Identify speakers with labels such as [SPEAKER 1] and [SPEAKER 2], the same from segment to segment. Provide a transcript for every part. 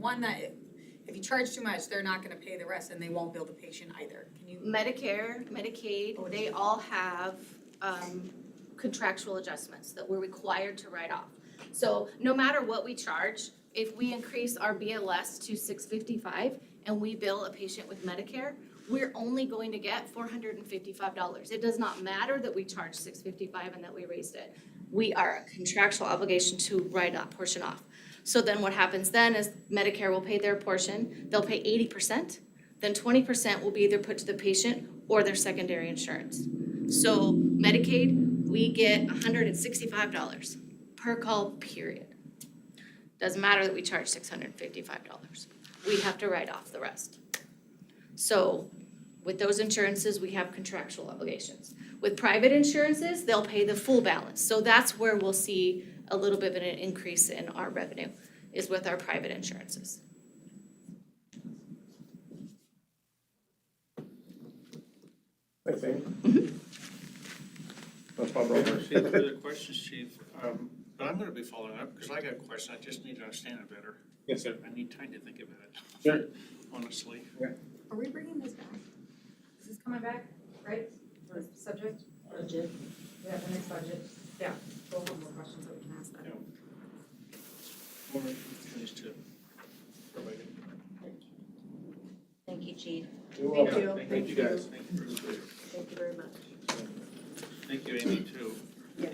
[SPEAKER 1] one that if you charge too much, they're not gonna pay the rest and they won't bill the patient either. Can you?
[SPEAKER 2] Medicare, Medicaid, they all have um contractual adjustments that we're required to write off. So no matter what we charge, if we increase our BLS to six fifty-five and we bill a patient with Medicare, we're only going to get four hundred and fifty-five dollars. It does not matter that we charge six fifty-five and that we raised it. We are a contractual obligation to write that portion off. So then what happens then is Medicare will pay their portion, they'll pay eighty percent then twenty percent will be either put to the patient or their secondary insurance. So Medicaid, we get hundred and sixty-five dollars per call, period. Doesn't matter that we charge six hundred and fifty-five dollars, we have to write off the rest. So with those insurances, we have contractual obligations. With private insurances, they'll pay the full balance, so that's where we'll see a little bit of an increase in our revenue, is with our private insurances.
[SPEAKER 3] Thanks, Amy. Let's pop
[SPEAKER 4] Well,
[SPEAKER 3] over.
[SPEAKER 4] if you have further uh, questions, chief, um, but I'm gonna be following up, because I got a question, I just need to understand it better.
[SPEAKER 3] Yes, sir.
[SPEAKER 4] I need time to think about it.
[SPEAKER 3] Sure.
[SPEAKER 4] Honestly.
[SPEAKER 1] Are we bringing this back?
[SPEAKER 5] This is coming back, right, for subject? Budget. Yeah, the next budget, yeah, we'll have more questions that we can ask then.
[SPEAKER 4] Or these two. Everybody.
[SPEAKER 5] Thank you, chief,
[SPEAKER 3] You're
[SPEAKER 5] Thank
[SPEAKER 3] welcome.
[SPEAKER 5] you.
[SPEAKER 4] Thank you guys, thank you for the-
[SPEAKER 5] thank you very much.
[SPEAKER 4] Thank you, Amy, too.
[SPEAKER 5] Yes.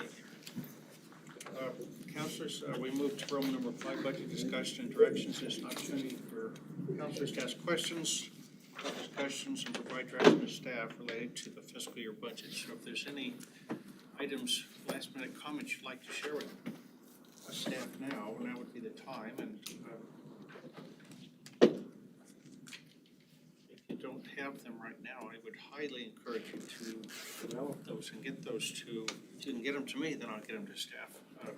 [SPEAKER 4] Uh, Counselors, uh, we move to room number five, budget discussion and directions. This is an opportunity for counselors to ask questions, have discussions, and provide direction to staff related to the fiscal year budget. So if there's any items, last minute comments you'd like to share with us staff now, now would be the time, and uh, if you don't have them right now, I would highly encourage you to develop those and get those to, if you can get them to me, then I'll get them to staff. um,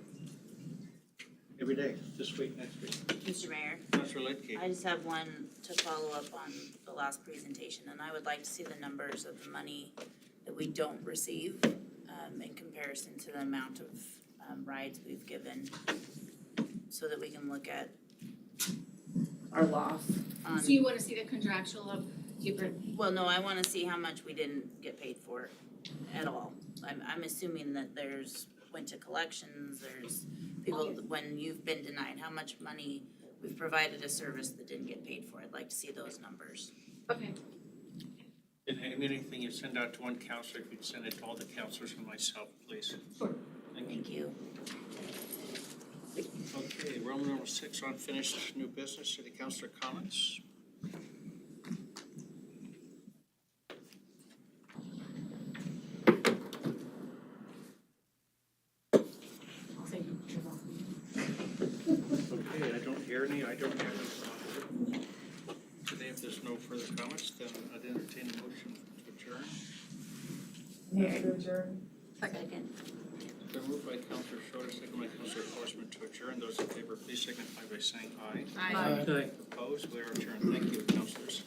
[SPEAKER 4] Every day, this week, next week.
[SPEAKER 6] Mr. Mayor,
[SPEAKER 4] Counselor Lidke,
[SPEAKER 6] I just have one to follow up on the last presentation, and I would like to see the numbers of the money that we don't receive um in comparison to the amount of um rides we've given. So that we can look at
[SPEAKER 5] Our loss.
[SPEAKER 6] on,
[SPEAKER 2] So you wanna see the contractual of Hubert?
[SPEAKER 6] well, no, I wanna see how much we didn't get paid for at all. I'm I'm assuming that there's went to collections, there's people, when you've been denied, how much money we've provided a service that didn't get paid for, I'd like to see those numbers.
[SPEAKER 2] Okay.
[SPEAKER 4] and and anything you send out to one counselor, if you'd send it to all the counselors and myself, please.
[SPEAKER 2] Sure.
[SPEAKER 4] Thank you.
[SPEAKER 6] Thank you.
[SPEAKER 4] Okay, Roman numeral six, unfinished new business, city councilor comments.
[SPEAKER 5] I'll say your loss.
[SPEAKER 4] Okay, I don't hear any, I don't have any. Today, if there's no further comments, then I'd entertain a motion to adjourn.
[SPEAKER 5] Move to adjourn.
[SPEAKER 6] Second.
[SPEAKER 4] It's been moved by Counselor Schroeder, second by Counselor Forsman to adjourn. Those in favor, please signify by saying aye.
[SPEAKER 1] Aye.
[SPEAKER 4] Opposed, we are adjourned. Thank you, counselors.